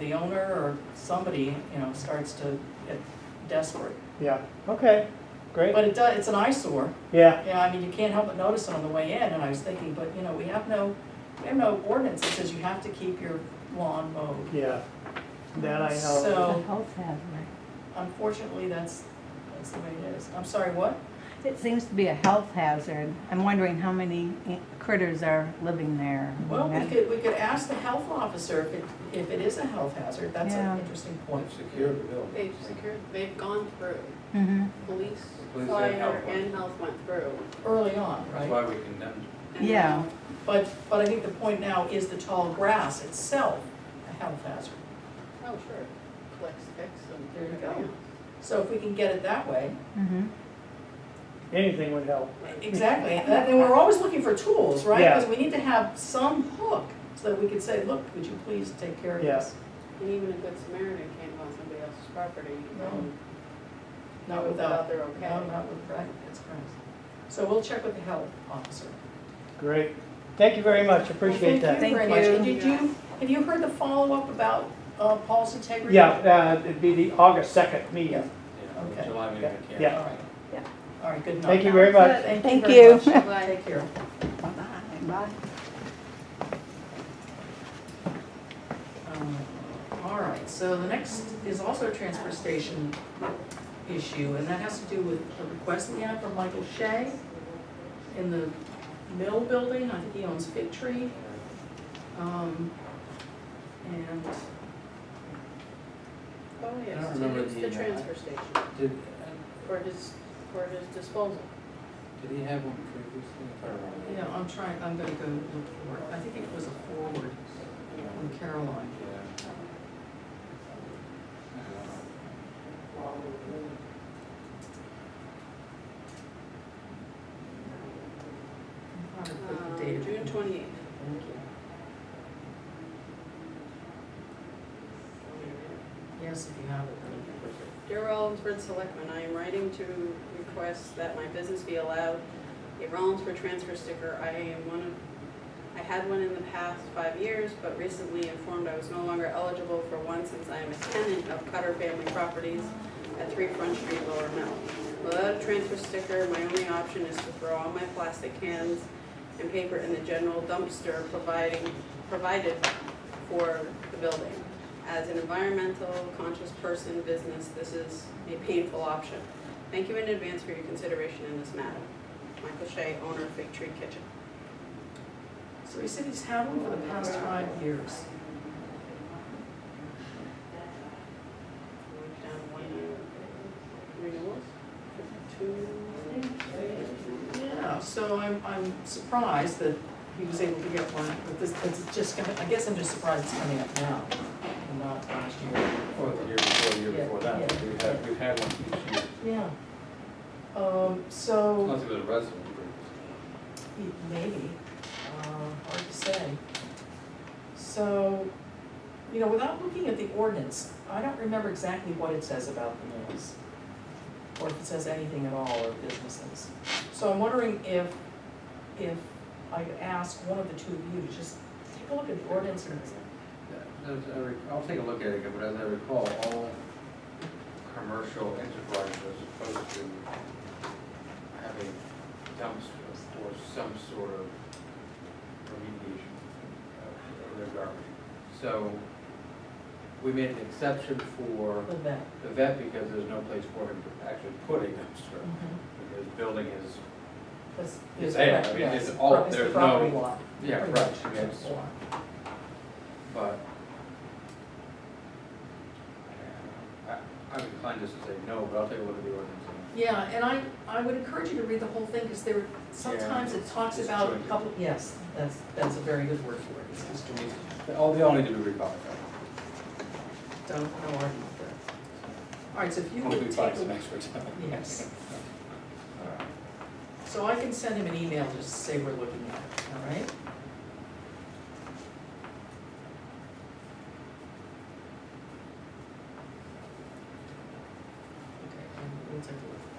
the owner or somebody, you know, starts to get desperate. yeah, okay, great, But it does, it's an eyesore. yeah, Yeah, I mean, you can't help but notice it on the way in, and I was thinking, but, you know, we have no, we have no ordinance that says you have to keep your lawn mowed. yeah, that I know. So- It's a health hazard. Unfortunately, that's, that's the way it is. I'm sorry, what? It seems to be a health hazard. I'm wondering how many i- critters are living there. Well, we That- could, we could ask the health officer if it, if it is a health hazard. That's Yeah. an interesting point. Secure the building. They've secured, they've gone through, Mhm. police, Police and fire, health went. and health went through. Early on, That's right? why we condemned and Yeah. now But, but I think the point now is the tall grass itself a health hazard. Oh, sure. Flex fix and. There you go. everything So if we can get it that way, Mhm. Anything would help, exactly. And then we're always looking for tools, right? Yeah. Because we need to have some hook so that we could say, look, would you please take care of Yeah. this? else. And even a good Samaritan can't go on somebody else's property. No. um, Not without, Without their okay. no, not with, right, that's correct. So we'll check with the health officer. great, thank you very much, appreciate Well, that. Thank you very Thank much. you. And did you, have you heard the follow-up about uh, Paul's integrity? Yeah, uh, it'd be the August second meeting, it. Yeah, Okay. July meeting, Yeah, we can't. All yeah. right. Yeah. All right, good night. thank you very much. Thank very you. much. Bye. Take care. Bye. Um, All right, so the next is also a transfer station issue, and that has to do with a request we have from Michael Shea in the mill building, I think he owns Fig Tree. Um, And Oh, I don't yes, remember to use the, the uh, transfer station Did, for his, for his disposal. did he have one previously? If I remember. Yeah, I'm trying, I'm gonna go look for it. I think it was a forward from Caroline. Yeah. I'm trying to put Um, the date of it. June twenty-eighth. Thank you. Yes, if you have it, that'd be perfect. Dear Rollinsford Selectmen, I am writing to request that my business be allowed a Rollinsford transfer sticker. I am one of, I had one in the past five years, but recently informed I was no longer eligible for one since I am a tenant of Cutter Family Properties at Three Front Street, Lower Mill. Without a transfer sticker, my only option is to throw all my plastic cans and paper in the general dumpster providing, provided for the building. As an environmental conscious person business, this is a painful option. Thank you in advance for your consideration in this matter. Michael Shea, owner of Fig Tree Kitchen. So he said he's had one for the past five years. Down one, renewals, two, Yeah, so I'm, I'm surprised that he was able to get one, but this, it's just gonna, I guess I'm just surprised it's coming up now and not last year. Or the year before, the year Yeah, before that, yeah. we've had, we've had one each year, Yeah. Um, so, unless it was a resident previously. maybe, uh, hard to say. So, you know, without looking at the ordinance, I don't remember exactly what it says about the mills. Or if it says anything at all, or businesses. So I'm wondering if, if I could ask one of the two of you to just take a look at the ordinance and As I re- I'll take a look at it again, but as I recall, all commercial enterprises are supposed to have a dumpster or some sort of remediation of their garbage. So we made an exception for the vet. the vet because there's no place for him to actually put a dumpster. Because building is, That's- It's there, I mean, yes, it's all- the there's property no- lot, yeah, pretty right, much, yes, lot. but I- I'm inclined just to say no, but I'll take a look at the ordinance and Yeah, and I, I would encourage you to read the whole thing, because there, sometimes it talks It's about a jointed. couple, yes, that's, that's a very good word for it, it's just, They all, they all need to be revised. don't, no argument there. All right, so if you Hopefully would take, find some a- extra time. yes, All right. so I can send him an email just to say we're looking at it, all right? Okay, and we'll take a look.